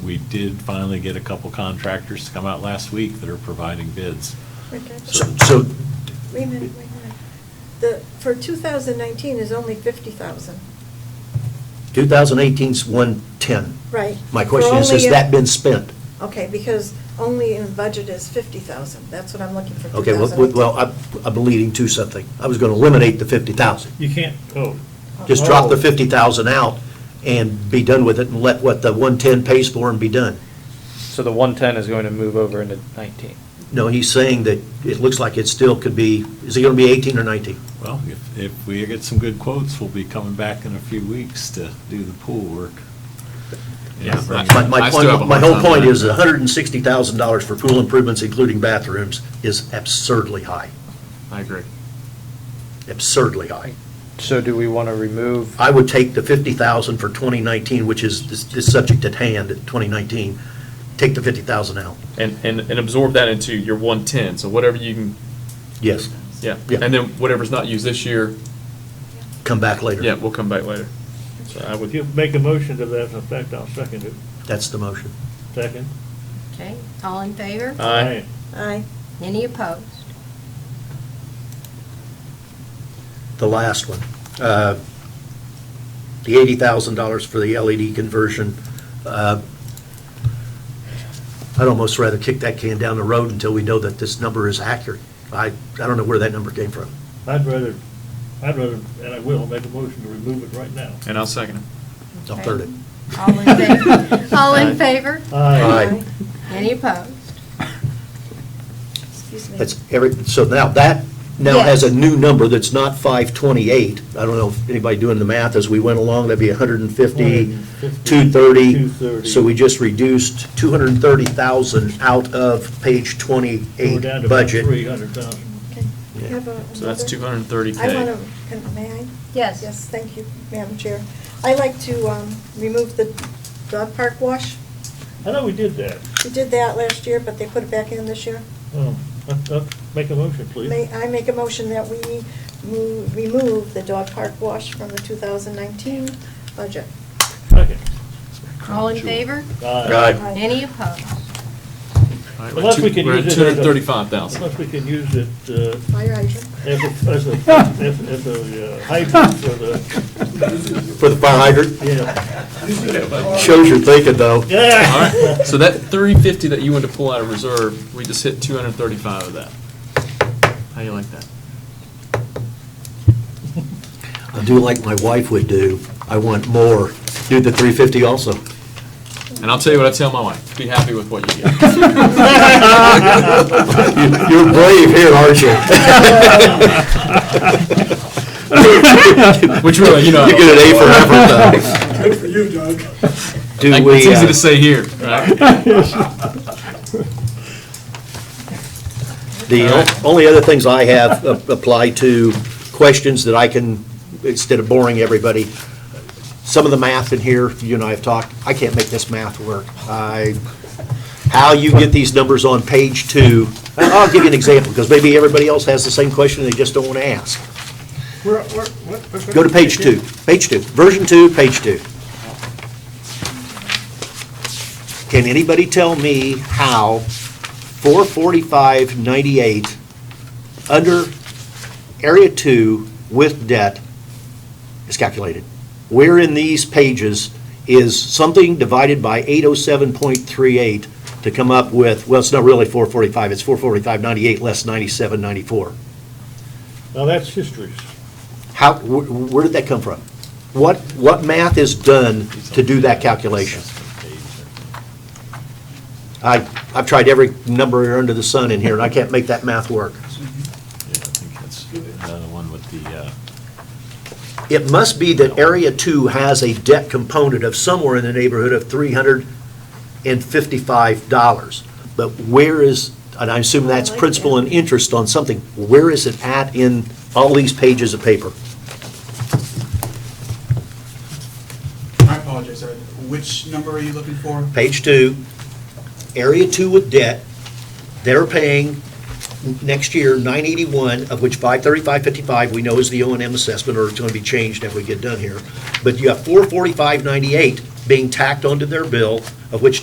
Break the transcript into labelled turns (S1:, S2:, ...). S1: we did finally get a couple contractors to come out last week that are providing bids.
S2: Richard,
S1: So-
S3: So,
S2: Wait a minute, wait a minute. The, for 2019 is only 50,000,
S3: 2018's 110.
S2: right?
S3: My question is,
S2: For only
S3: has
S2: in-
S3: that been spent?
S2: Okay, because only in budget is 50,000, that's what I'm looking for,
S3: Okay,
S2: 2018.
S3: well, well, I- I've been leading to something. I was going to eliminate the 50,000.
S4: You can't, oh.
S3: Just drop the
S4: Oh.
S3: 50,000 out and be done with it and let what the 110 pays for and be done.
S5: So the 110 is going to move over into 19.
S3: No, he's saying that it looks like it still could be, is it going to be 18 or 19?
S1: Well, if, if we get some good quotes, we'll be coming back in a few weeks to do the pool work.
S6: Yeah.
S1: Bring it
S3: My,
S1: back.
S3: my
S6: I still have a
S3: point, my
S6: hard
S3: whole
S6: time
S3: point
S6: with
S3: is $160,000 for pool improvements, including bathrooms, is absurdly high,
S6: I agree.
S3: absurdly high.
S5: So do we want to remove,
S3: I would take the 50,000 for 2019, which is this- this subject at hand, 2019, take the 50,000 out.
S6: And, and, and absorb that into your one-ten, so whatever you can,
S3: Yes,
S6: yeah.
S3: Yeah.
S6: And then whatever's not used this year,
S3: come back later.
S6: yeah, we'll come back later. So I
S4: If
S6: would,
S4: you make a motion to that effect, I'll second it.
S3: That's the motion.
S4: Second?
S7: Okay, all in favor?
S6: Aye.
S2: Aye.
S7: Any opposed?
S3: The last one, uh, the $80,000 for the LED conversion. uh, I'd almost rather kick that can down the road until we know that this number is accurate. I, I don't know where that number came from.
S4: I'd rather, I'd rather, and I will, make a motion to remove it right now.
S6: and I'll second it.
S3: I'll third it.
S7: All in favor? All in favor?
S3: Aye.
S7: Any opposed?
S2: Excuse me.
S3: That's every, so now that, now has a new number that's not 528. I don't know if anybody doing the math as we went along, that'd be 150, 230.
S4: 230.
S3: So we just reduced 230,000 out of page 28
S4: We're down to about
S3: budget.
S4: three hundred thousand.
S2: Can I
S3: Yeah.
S2: have a-
S6: So that's
S2: another-
S6: two hundred and thirty
S2: I want
S6: K.
S2: to, may I?
S7: Yes.
S2: Yes, thank you, Madam Chair. i like to um, remove the dog park wash.
S4: I know we did that.
S2: We did that last year, but they put it back in this year.
S4: Oh, uh, uh, Make a motion, please.
S2: May, I make a motion that we move, remove the dog park wash from the 2019 budget.
S4: Second.
S7: All in favor?
S4: Aye.
S2: Aye.
S7: Any opposed?
S4: Unless we can use it.
S6: Two hundred and thirty-five thousand.
S4: Unless we can use it uh,
S2: Fire hydrant.
S4: as a, as a, as- as a uh, hydrant for the,
S3: For the fire hydrant,
S4: yeah.
S3: shows you're thinking though.
S6: All
S4: Yeah.
S6: right, so that three fifty that you wanted to pull out of reserve, we just hit two hundred and thirty-five of that. How you like that?
S3: I do like my wife would do, I want more, do the 350 also.
S6: And I'll tell you what I tell my wife, be happy with what you get.
S3: You- You're brave here, aren't you?
S6: Which really, you know. I
S3: You
S6: don't-
S3: get an A for effort though.
S4: Good for you, Doug.
S3: Do
S6: I-
S3: we,
S6: It's easy
S3: uh,
S6: to say here, right?
S3: The o- only other things I have a- apply to questions that I can, instead of boring everybody, some of the math in here, you and I have talked, I can't make this math work. I, how you get these numbers on page two, I- I'll give you an example, because maybe everybody else has the same question, they just don't want to ask. Go to page two, page two, version two, page two. Can anybody tell me how 44598 under Area 2 with debt is calculated? Where in these pages is something divided by 807.38 to come up with, well, it's not really 445, it's 44598 less 9794?
S4: Now, that's history.
S3: How, wh- where did that come from? What, what math is done to do that calculation? I, I've tried every number under the sun in here, and I can't make that math work.
S1: Yeah, I think that's another one with the, uh,
S3: It must be that Area 2 has a debt component of somewhere in the neighborhood of $355. But where is, and I assume that's
S2: I like
S3: principal
S2: that.
S3: and interest on something, where is it at in all these pages of paper?
S8: I apologize, sir. Which number are you looking for?
S3: page two, area two with debt, they're paying next year nine eighty-one, of which five thirty-five fifty-five, we know is the O and M assessment, or it's gonna be changed if we get done here. But you have four forty-five ninety-eight being tacked onto their bill, of which